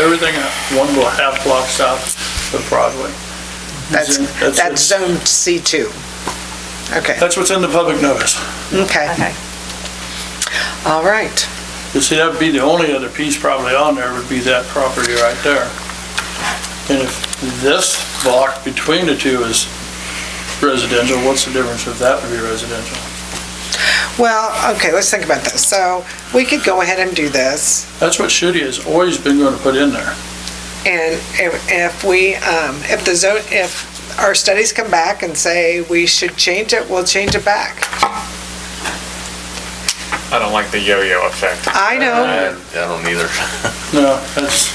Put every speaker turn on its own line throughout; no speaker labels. everything at one little half block south of Broadway.
That's,
Zone- that's
that's
it.
zone C2. Okay,
That's what's in the public notice.
okay,
Okay.
all right.
You see, that'd be the only other piece probably on there would be that property right there. And if this block between the two is residential, what's the difference if that would be residential?
Well, okay, let's think about this. So we could go ahead and do this,
That's what Shitty has always been going to put in there.
and if if we, um, if the zone, if our studies come back and say we should change it, we'll change it back.
I don't like the yo-yo effect.
I know,
I I don't either.
No, that's,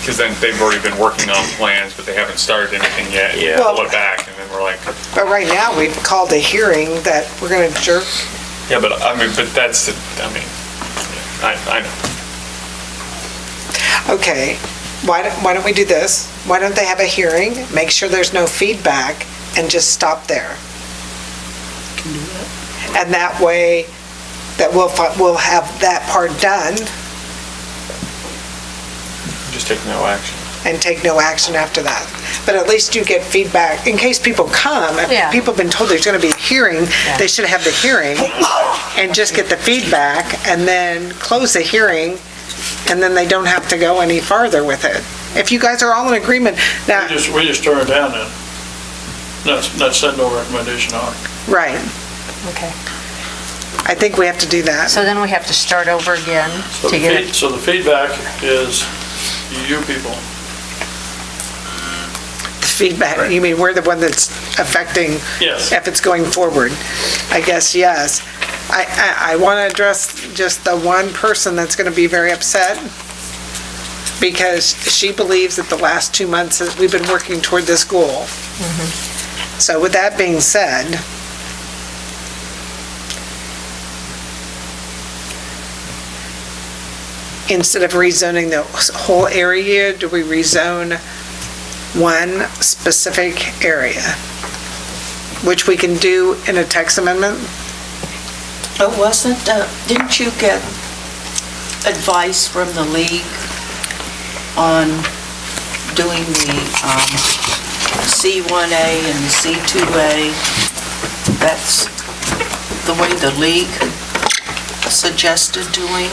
Because then they've already been working on plans, but they haven't started anything yet.
Yeah.
Pull it back, and then we're like,
but right now, we've called a hearing that we're going to jerk.
yeah, but I mean, but that's, the- I mean, I, I know.
Okay, why don't, why don't we do this? Why don't they have a hearing, make sure there's no feedback, and just stop there? And that way, that we'll, fi- we'll have that part done
Just take no action.
and take no action after that. But at least you get feedback, in case people come,
Yeah.
if people have been told there's gonna be a hearing,
Yeah.
they should have the hearing and just get the feedback and then close the hearing, and then they don't have to go any farther with it. If you guys are all in agreement,
we
now,
just, we just turned it down then. That's, that's said no recommendation on. it.
right,
Okay.
I think we have to do that.
So then we have to start over again
So
to
the
get it.
feed- So the feedback is you people.
The feedback, you mean, we're the one that's affecting
Yes.
if it's going forward. I guess, yes. I, I, I want to address just the one person that's going to be very upset because she believes that the last two months that we've been working toward this goal. So with that being said, instead of rezoning the whole area, do we rezone one specific area? which we can do in a text amendment.
But wasn't, uh, didn't you get advice from the league on doing the um, C1A and the C2A? That's the way the league suggested doing?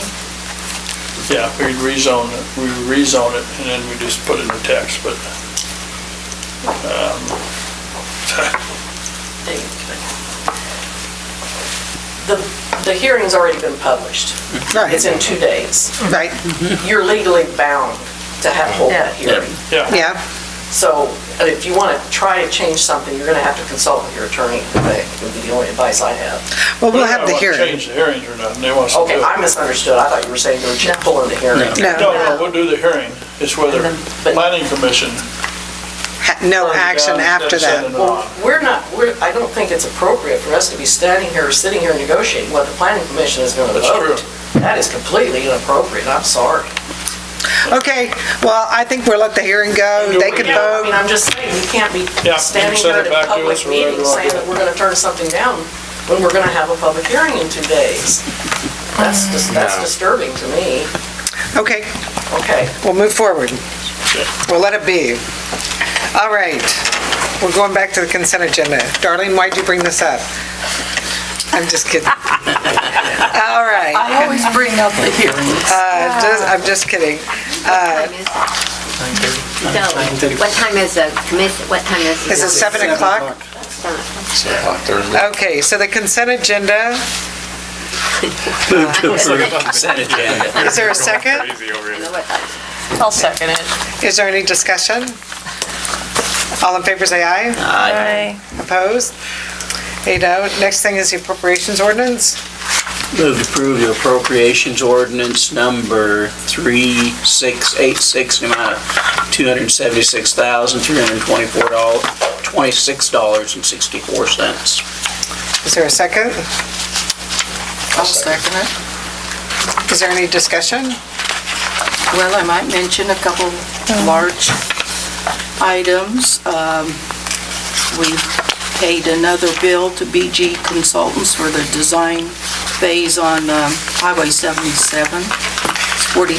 Yeah, we rezone it, we rezone it, and then we just put it in the text, but,
The, the hearing's already been published. It's in two days.
Right,
You're legally bound to have, hold that hearing.
yeah.
yeah,
So uh, if you want to try to change something, you're going to have to consult with your attorney. That would be the only advice I have.
well, we'll have the
They
hearing.
don't want to change the hearings or nothing, they want us to do
Okay,
it.
I misunderstood. I thought you were saying you were just pulling the hearing.
No.
No, no, we'll do the hearing, it's whether
And then- but-
planning commission.
Ha- No
turns it
action
down instead
after
of sending it
that.
on.
Well, we're not, we're, I don't think it's appropriate for us to be standing here, sitting here negotiating what the planning commission is going to
That's
vote. That is completely inappropriate. I'm sorry.
Okay, well, I think we'll let the hearing go. They could
Yeah, I mean,
vote.
I'm just saying, you can't be
Yeah,
standing
send it
there at
back to
a public
us or whatever
meeting
you want
saying
to do.
that we're gonna turn something down when we're gonna have a public hearing in two days. That's just, that's disturbing to me.
Okay,
Okay.
we'll move forward. We'll let it be. All right, we're going back to the consent agenda. Darlene, why'd you bring this up? I'm just kidding. All right,
I always bring up the hearings.
uh, just- I'm just kidding.
So, what time is the commission, what time is the...
Is it 7 o'clock? Okay, so the consent agenda, is there a second?
Easy over here.
I'll second it.
Is there any discussion? All in favor, say aye.
Aye.
Opposed? Eight oh. Next thing is the appropriations ordinance.
Move to approve the appropriations ordinance number 3686, in the amount of $276,324.26.64.
Is there a second?
I'll second it.
Is there any discussion?
Well, I might mention a couple large items. Um, We've paid another bill to BG Consultants for the design phase on um, Highway 77. It's forty